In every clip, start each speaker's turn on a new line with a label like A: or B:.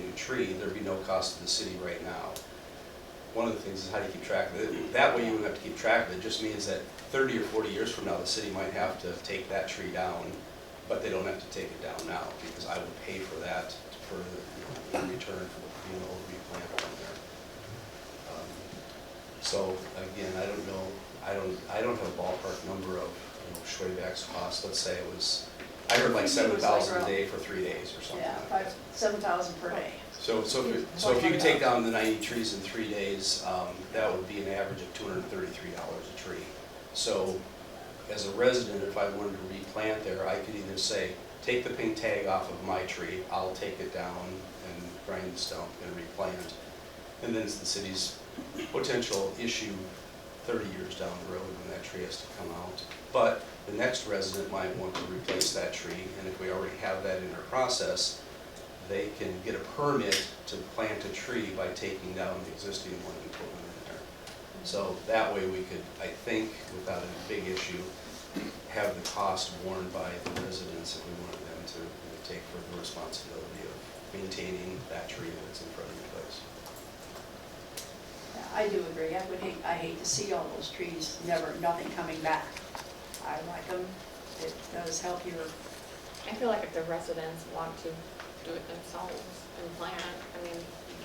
A: a tree, there'd be no cost to the city right now. One of the things is how do you keep track of it? That way you wouldn't have to keep track of it, It just means that thirty or forty years from now, the city might have to take that tree down, but they don't have to take it down now, because I would pay for that for, you know, in return for being able to replant on there. Um, So, again, I don't know, I don't, I don't have a ballpark number of, you know, Schwayback's cost, let's say it was, I heard like
B: I think it
A: seven
B: was like
A: thousand a
B: around-
A: day for three days or something
B: Yeah,
A: like that.
B: five, seven thousand per day.
A: So, so if, you- so if you could take down the ninety trees in three days, um, that would be an average of two hundred and thirty-three dollars a tree. So, as a resident, if I wanted to replant there, I could either say, take the pink tag off of my tree, I'll take it down and grind the stump and replant. And then it's the city's potential issue thirty years down the road when that tree has to come out. But the next resident might want to replace that tree, and if we already have that in our process, they can get a permit to plant a tree by taking down the existing one and putting one in there. So that way we could, I think, without a big issue, have the cost borne by the residents if we wanted them to you know, take further responsibility of maintaining that tree that's in front of your place.
B: Yeah, I do agree, I would hate, I hate to see all those trees, never, nothing coming back. I like them, it does help your,
C: I feel like if the residents want to do it themselves and plan, I mean,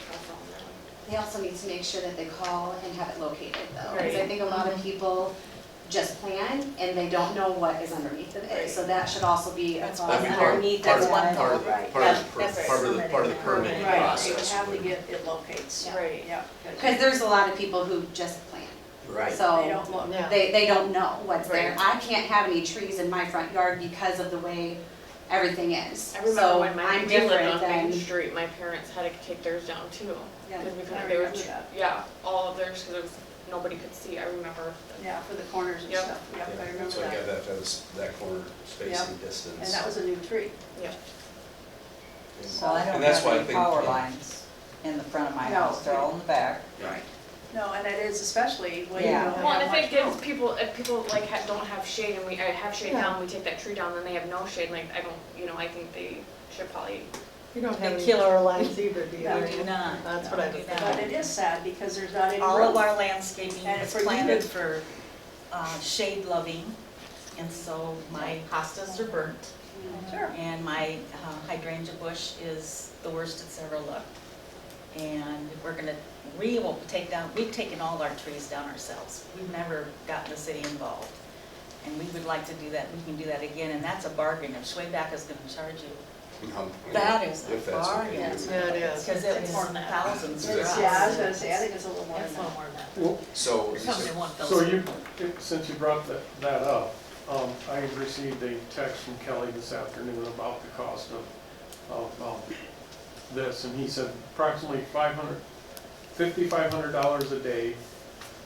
C: that's all they're
D: They also need to make sure that they call and have it located though. Because I
C: Right.
D: think a lot of people just plan and they don't know what is underneath of it.
C: Right.
D: So that should also be a
C: That's
D: clause
A: That'd be part-
D: underneath
A: part
D: that
A: of-
D: one.
A: Part of, the-
B: Right.
A: part of, the per-
C: That's right.
A: part of the, part of the permitting
C: Right.
B: right, you would
A: process.
B: have to
A: would-
B: get, it locates.
C: Right.
B: Yeah.
D: Because there's a lot of people who just plan.
A: Right.
B: They
D: So
B: don't look.
C: Yeah.
D: they, they don't know what's there.
C: Right.
D: I can't have any trees in my front yard because of the way everything is.
C: I remember
D: So
C: when my,
D: I'm
C: we lived
D: different
C: on Main
D: than,
C: Street, my parents had to take theirs down too.
D: Yeah.
C: Because we
B: I
C: couldn't, they were,
B: remember that.
C: yeah, all of theirs, because it was, nobody could see, I remember.
B: Yeah, for the corners and
C: Yep.
B: stuff, yeah,
A: Yeah,
B: I remember
A: So I got
B: that.
A: that, that was, that corner
B: Yeah.
A: spacing distance.
B: And that was a new tree.
C: Yeah,
A: And-
E: Well, I don't
A: and that's
E: have
A: why I
E: any
A: think,
E: power
A: yeah.
E: lines in the front of my
B: No.
E: house, they're all in the back.
A: Right.
B: No, and it is especially when you
E: Yeah.
B: don't
C: well, and
B: have
C: if it
B: much
C: gives
B: room.
C: people, if people like ha- don't have shade and we, I have shade
E: Yeah.
C: down, we take that tree down, then they have no shade, like, I don't, you know, I think they should probably,
F: You don't
G: have any-
F: killer lines either, do
B: No,
F: We do not. That's what I was
B: But it is sad because there's not any room.
G: All of our landscaping
B: And
G: is
B: for you to-
G: planted for uh, shade loving, and so my hostas are burnt,
B: Sure.
G: and my uh, hydrangea bush is the worst it's ever looked. And we're gonna, we will take down, we've taken all our trees down ourselves, we've never gotten the city involved. And we would like to do that, we can do that again, and that's a bargain, if Schwayback is gonna charge you,
A: Um,
G: that is
A: If
G: a
A: that's what they
G: bargain.
A: do.
F: Yeah, it is.
G: Because it was thousands for
B: It's-
G: us.
B: Yeah, I was gonna say, I think it's a little more than
G: It's a little
B: that.
G: more than that.
H: Well,
A: So,
G: Something one
H: So you, since you brought that, that up, um, I received a text from Kelly this afternoon about the cost of, of, um, this, and he said approximately five hundred, fifty-five hundred dollars a day.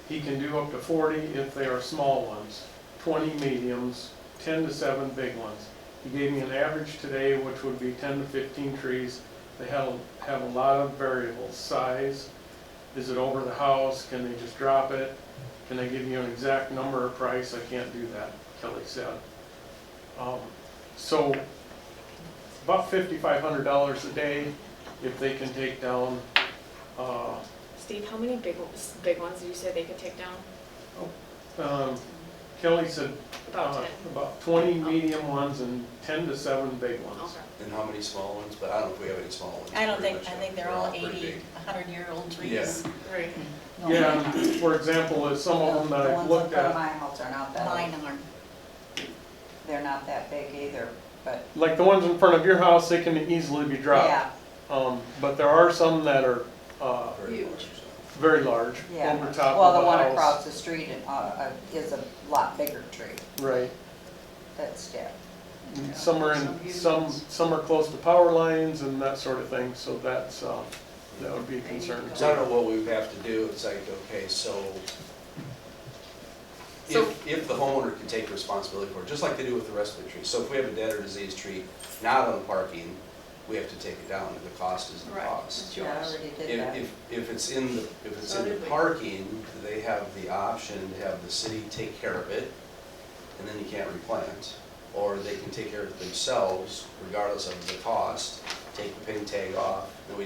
H: He can do up to forty if they are small ones, twenty mediums, ten to seven big ones. He gave me an average today, which would be ten to fifteen trees. They have, have a lot of variables, size, is it over the house, can they just drop it? Can I give you an exact number or price? I can't do that, Kelly said. Um, So about fifty-five hundred dollars a day if they can take down, uh,
C: Steve, how many big, ones- big ones did you say they could take down?
H: um, Kelly said
C: About
H: uh,
C: ten?
H: about twenty medium ones and ten to seven big ones.
C: Okay.
A: and how many small ones, but I don't know if we have any small ones.
G: I don't
A: Pretty
G: think, I
A: much,
G: think they're
A: yeah.
G: all
A: pretty
G: eighty,
A: big.
G: hundred-year-old trees.
A: Yeah.
C: Right.
H: Yeah, and for example, is some of them that I've
E: The ones in
H: looked
E: front of
H: at,
E: my house are not
G: Mine
E: that,
G: are.
E: they're not that big either, but,
H: like the ones in front of your house, they can easily be dropped.
E: yeah,
H: Um, But there are some that are uh,
A: Very large.
H: very large,
E: yeah.
H: over top
E: Well,
H: of
E: the
H: the house.
E: one across the street uh, uh, is a lot bigger tree,
H: Right.
E: that's, yeah.
H: And Some are
B: Some
H: in,
B: huge
H: some,
B: ones.
H: some are close to power lines and that sort of thing, so that's, uh, that would be a concern.
A: So I don't know what we would have to do, it's like, okay, so
C: So-
A: if, if the homeowner can take responsibility for it, just like they do with the rest of the trees. So if we have a dead or diseased tree not on parking, we have to take it down, and the cost is the
B: Right,
A: cost.
B: it's
E: Yeah, I
B: yours.
E: already did
A: If,
E: that.
A: if, if it's in the, if it's
B: So
A: in the
B: did we.
A: parking, they have the option to have the city take care of it, and then you can't replant. Or they can take care of it themselves, regardless of the cost, take the pin tag off, and we